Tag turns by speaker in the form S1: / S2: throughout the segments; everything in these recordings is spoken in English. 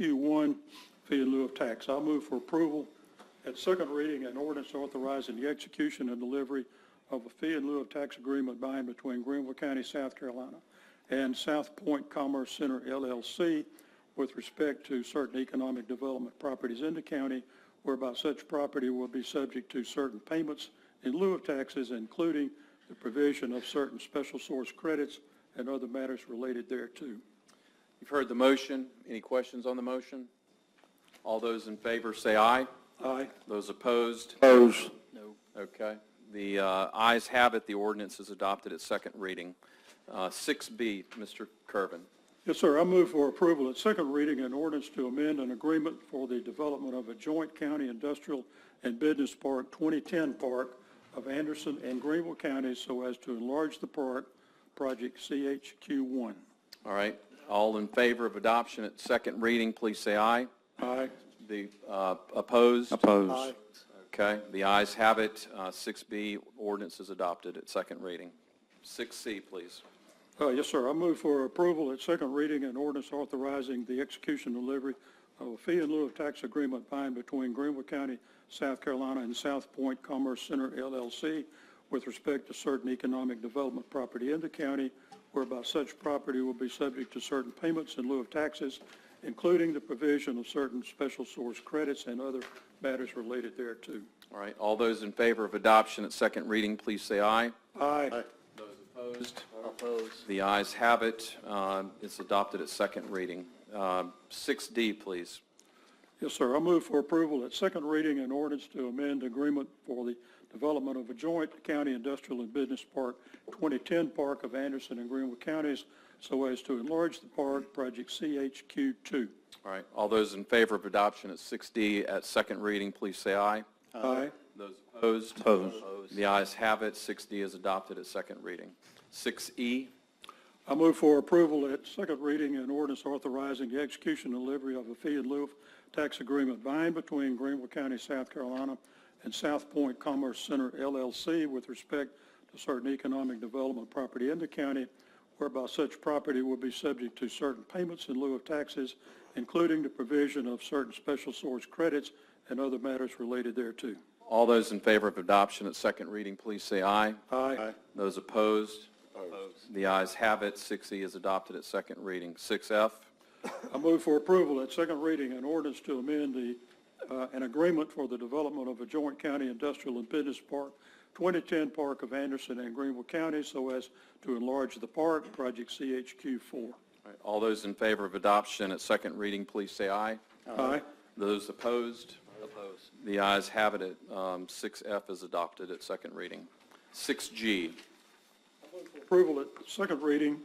S1: Q1, fee in lieu of tax. I'll move for approval at second reading an ordinance authorizing the execution and delivery of a fee in lieu of tax agreement by and between Greenville County, South Carolina, and South Point Commerce Center LLC with respect to certain economic development properties in the county whereby such property will be subject to certain payments in lieu of taxes, including the provision of certain special source credits and other matters related thereto.
S2: You've heard the motion. Any questions on the motion? All those in favor say aye.
S1: Aye.
S2: Those opposed?
S3: Opposed.
S2: Okay. The uh, ayes have it. The ordinance is adopted at second reading. Uh, 6B, Mr. Kervin.
S1: Yes, sir. I move for approval at second reading an ordinance to amend an agreement for the development of a joint county industrial and business park, 2010 park of Anderson and Greenville counties so as to enlarge the park, project CHQ1.
S2: All right. All in favor of adoption at second reading, please say aye.
S1: Aye.
S2: The uh, opposed?
S3: Opposed.
S2: Okay. The ayes have it. Uh, 6B, ordinance is adopted at second reading. 6C, please.
S1: Uh, Yes, sir. I move for approval at second reading an ordinance authorizing the execution delivery of a fee in lieu of tax agreement by and between Greenville County, South Carolina, and South Point Commerce Center LLC with respect to certain economic development property in the county whereby such property will be subject to certain payments in lieu of taxes, including the provision of certain special source credits and other matters related thereto.
S2: All right. All those in favor of adoption at second reading, please say aye.
S1: Aye.
S2: Opposed? Opposed. The ayes have it. Uh, It's adopted at second reading. Um, 6D, please.
S1: Yes, sir. I move for approval at second reading an ordinance to amend agreement for the development of a joint county industrial and business park, 2010 Park of Anderson and Greenville Counties, so as to enlarge the park, project CHQ2.
S2: All right. All those in favor of adoption at 6D at second reading, please say aye.
S1: Aye.
S2: Those opposed? Opposed. The ayes have it. 6D is adopted at second reading. E, 6E,
S1: I move for approval at second reading an ordinance authorizing the execution and delivery of a fee in lieu of tax agreement by and between Greenville County, South Carolina, and South Point Commerce Center LLC with respect to certain economic development property in the county whereby such property will be subject to certain payments in lieu of taxes, including the provision of certain special source credits and other matters related thereto.
S2: all those in favor of adoption at second reading, please say aye.
S1: Aye.
S2: Those opposed? Opposed. The ayes have it. 6E is adopted at second reading. 6F?
S1: I move for approval at second reading an ordinance to amend the, uh, an agreement for the development of a joint county industrial and business park, 2010 Park of Anderson and Greenville County, so as to enlarge the park, project CHQ4.
S2: All right, All those in favor of adoption at second reading, please say aye.
S1: Aye.
S2: Those opposed? Opposed. The ayes have it. at, um, 6F is adopted at second reading. 6G,
S1: Approval at second reading,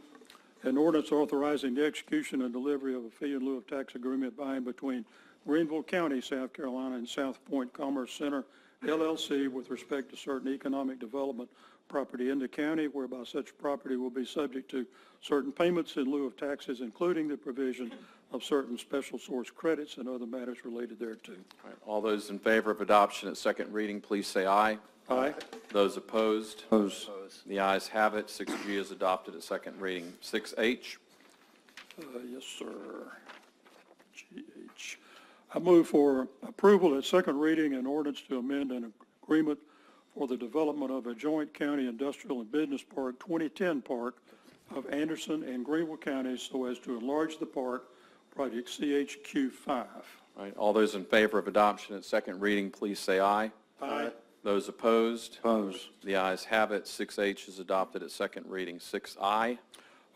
S1: an ordinance authorizing the execution and delivery of a fee in lieu of tax agreement by and between Greenville County, South Carolina, and South Point Commerce Center LLC with respect to certain economic development property in the county whereby such property will be subject to certain payments in lieu of taxes, including the provision of certain special source credits and other matters related thereto.
S2: All right, all those in favor of adoption at second reading, please say aye.
S1: Aye.
S2: Those opposed?
S3: Opposed.
S2: The ayes have it. 6G is adopted at second reading. 6H,
S1: Uh, Yes, sir. GH. I move for approval at second reading an ordinance to amend an agreement for the development of a joint county industrial and business park, 2010 Park of Anderson and Greenville counties so as to enlarge the park, project CHQ5.
S2: All right, all those in favor of adoption at second reading, please say aye.
S1: Aye.
S2: Those opposed?
S3: Opposed.
S2: The ayes have it. 6H is adopted at second reading. 6I,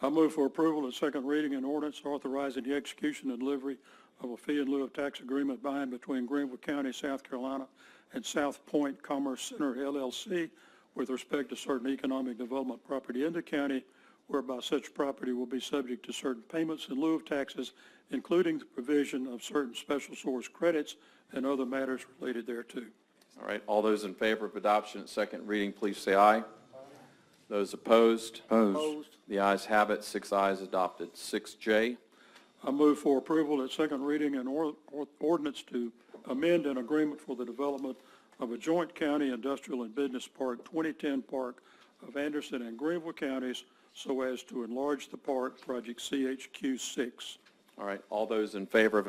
S1: I move for approval at second reading an ordinance authorizing the execution and delivery of a fee in lieu of tax agreement by and between Greenville County, South Carolina, and South Point Commerce Center LLC with respect to certain economic development property in the county whereby such property will be subject to certain payments in lieu of taxes, including the provision of certain special source credits and other matters related thereto.
S2: All right, all those in favor of adoption at second reading, please say aye. Those opposed?
S3: Opposed.
S2: The ayes have it, six ayes adopted. 6J,
S1: I move for approval at second reading an or- or- ordinance to amend an agreement for the development of a joint county industrial and business park, 2010 Park of Anderson and Greenville counties, so as to enlarge the park, project CHQ6.
S2: all right, all those in favor of